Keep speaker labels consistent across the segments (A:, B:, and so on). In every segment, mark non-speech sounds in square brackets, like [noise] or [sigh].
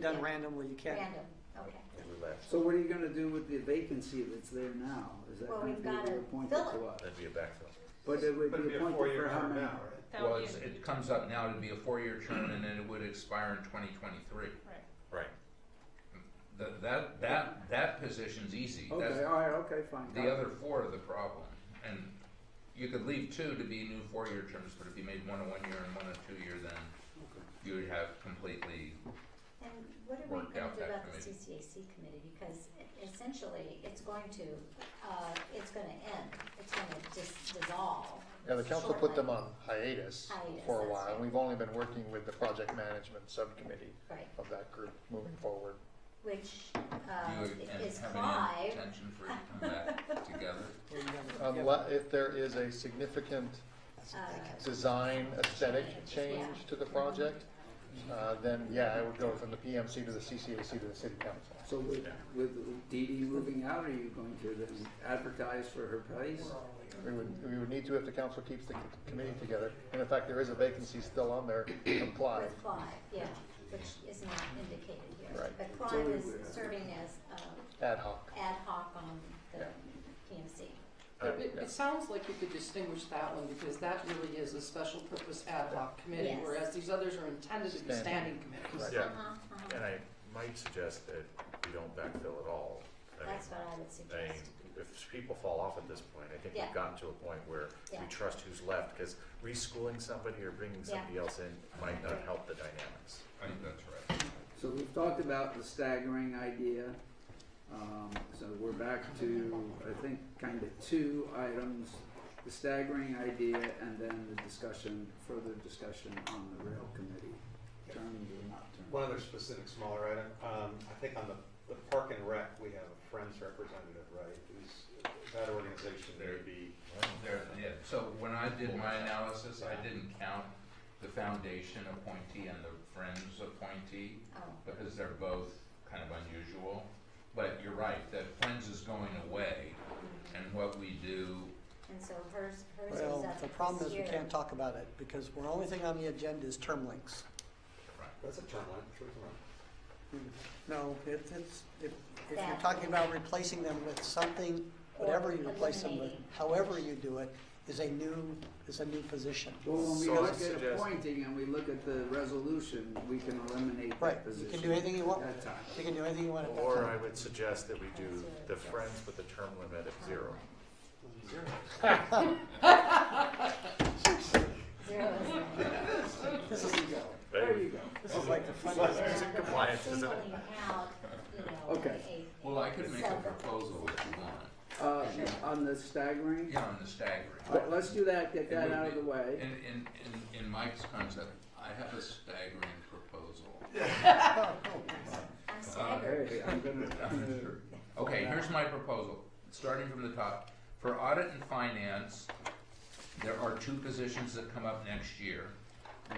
A: done randomly, you can't.
B: Random, okay.
C: We left.
D: So what are you gonna do with the vacancy that's there now? Is that
B: Well,
D: gonna
B: we've
D: be
B: gotta
D: appointed
B: fill
D: to us?
C: That'd be a backfill.
D: But it would
E: But it'd
D: be
E: be a
D: appointed for
E: four-year
D: how
E: term
D: many?
E: now, right?
F: That would
G: Well,
F: be
G: it's-
F: a-
G: it comes up now, it'd be a four-year term, and then it would expire in twenty twenty-three.
F: Right.
C: Right.
G: That, that, that, that position's easy,
D: Okay,
G: that's,
D: all right, okay, fine. got
G: the
D: it.
G: other four are the problem. And you could leave two to be new four-year terms, but if you made one a one-year and one a two-year, then
D: Okay.
G: you would have completely,
B: And what are we
G: Work
B: gonna
G: out
B: do
G: that
B: about the
G: committee.
B: CCAC committee? Because essentially, it's going to, uh, it's gonna end, it's gonna just dissolve.
H: Yeah, the council put them
B: shortly.
H: on hiatus
B: Hiatus,
H: for a
B: that's
H: while,
B: right.
H: and we've only been working with the project management subcommittee
B: Right,
H: of that group moving forward.
B: which,
G: do
B: uh,
G: you and
B: is
G: have any
B: Clive, Uh,
G: intention for it to come
B: [laughs]
G: back together?
A: Well, you gotta- you gotta-
H: Unless, if there is a significant
B: uh,
H: design aesthetic change to the project, uh, then yeah, it would go from the PMC to the CCAC to the city council.
D: So with, with Dee Dee moving out, are you going to then advertise for her place?
H: We would, we would need to if the council keeps the committee together, and in fact, there is a vacancy still on there, from Clive.
B: with Clive, yeah, which is not indicated here.
H: Right.
B: But
D: So
B: Clive
D: we would-
B: is serving as, uh,
H: ad hoc.
B: ad hoc on the
H: Yeah.
B: PMC.
C: Alright,
I: It,
H: yeah.
I: it sounds like you could distinguish that one because that really is a special purpose ad hoc committee,
B: Yes.
I: whereas these others are intended to be standing
H: Standing.
I: committees.
H: Right.
C: Yeah.
B: Uh-huh, uh-huh.
C: And I might suggest that we don't backfill at all. I mean,
B: That's what I would
C: I mean,
B: suggest.
C: if people fall off at this point, I think
B: Yeah.
C: we've gotten to a point where we
B: Yeah.
C: trust who's left, because reschooling somebody or bringing somebody else in might not help the dynamics.
G: I think that's right.
D: So we've talked about the staggering idea. Um, so we're back to, I think, kind of two items, the staggering idea and then the discussion, further discussion on the rail committee, terms or not terms.
E: One other specific smaller item, um, I think on the, the park and rec, we have a Friends representative, right? Is that organization there would be,
G: There, yeah, so when I did my analysis, I didn't count the foundation appointee and the Friends appointee.
B: Oh,
G: because they're both kind of unusual. But you're right, that Friends is going away,
B: mm-hmm.
G: and what we do,
B: and so hers, hers is
A: Well,
B: up
A: the problem
B: this
A: is we
B: year.
A: can't talk about it because the only thing on the agenda is term links.
E: that's a term line, sure it's wrong.
A: Hmm. No, it, it's, if, if you're
B: That.
A: talking about replacing them with something,
B: Or
A: whatever you replace them with,
B: eliminating.
A: however you do it, is a new, is a new position.
D: Well, when we
C: So I
D: look at
C: suggest-
D: appointing and we look at the resolution, we can eliminate
A: Right,
D: that
A: you can
D: position.
A: do anything you want,
D: That time.
A: you can do anything you want at that
C: Or I
A: time.
C: would suggest that we do the friends with the term limit of
B: Um, [laughs]
C: zero.
B: Zero is not.
A: This is,
D: There you go.
A: this is like the
C: Well,
A: fun.
C: it's in compliance, isn't it?
B: Singling out, you know,
D: Okay.
B: a-
G: well, I could make a proposal if you want,
D: Uh, on the staggering,
G: yeah, on the staggering.
D: all right, let's do that, get
G: It
D: that
G: would
D: out of
G: be-
D: the way.
G: In, in, in, in Mike's concept, I have a staggering proposal. uh,
B: I'm staggered.
D: Hey,
B: [laughs]
D: I'm gonna,
G: Okay, here's my proposal, starting from the top. For audit and finance, there are two positions that come up next year.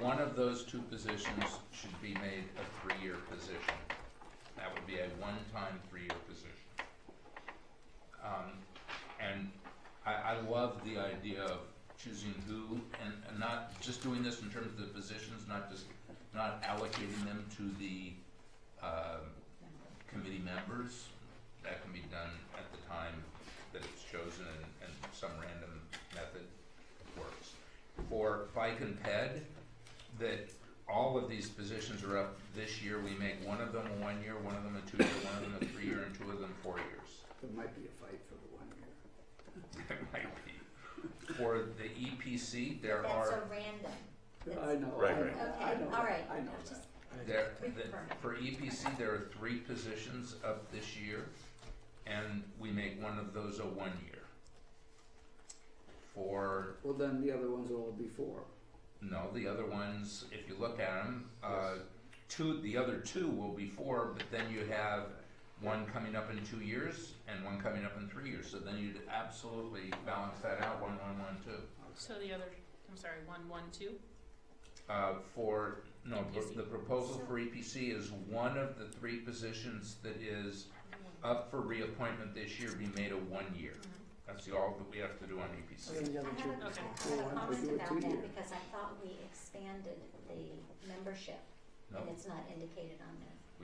G: One of those two positions should be made a three-year position. That would be a one-time, three-year position. Um, and I, I love the idea of choosing who and, and not just doing this in terms of the positions, not just, not allocating them to the, um, committee members. That can be done at the time that it's chosen and, and some random method works. For FICA and PED, that all of these positions are up this year. We make one of them a one-year, one of them a two-year, one of them a three-year, and two of them four years. [laughs]
D: there might be a fight for the one here.
G: That might be. For the EPC, there
B: That's so
G: are,
B: random.
D: I know,
C: Right,
D: I know,
C: right.
D: I
B: Okay,
D: know
B: all
D: that,
B: right.
D: I know
B: Just-
D: that.
G: there, the- for EPC, there are three positions up this year, and we make one of those a one-year. For
D: Well, then the other ones are all before.
G: No, the other ones, if you look at them, uh, two, the other two will be four, but then you have one coming up in two years and one coming up in three years, so then you'd absolutely balance that out, one, one, one, two.
F: So the other, I'm sorry, one, one, two?
G: Uh, for, no, the-
F: EPC.
G: the proposal for EPC is one of the three positions that is up for reappointment this year be made a one-year. That's the, all that we have to do on E
A: And then
G: EPC.
A: the
B: I
A: other
B: have
A: two.
B: a,
F: Okay.
B: I have a
D: We
B: comment
D: do it
B: about
D: two-year.
B: that because I thought we expanded the membership and
G: No,
B: it's not indicated on there.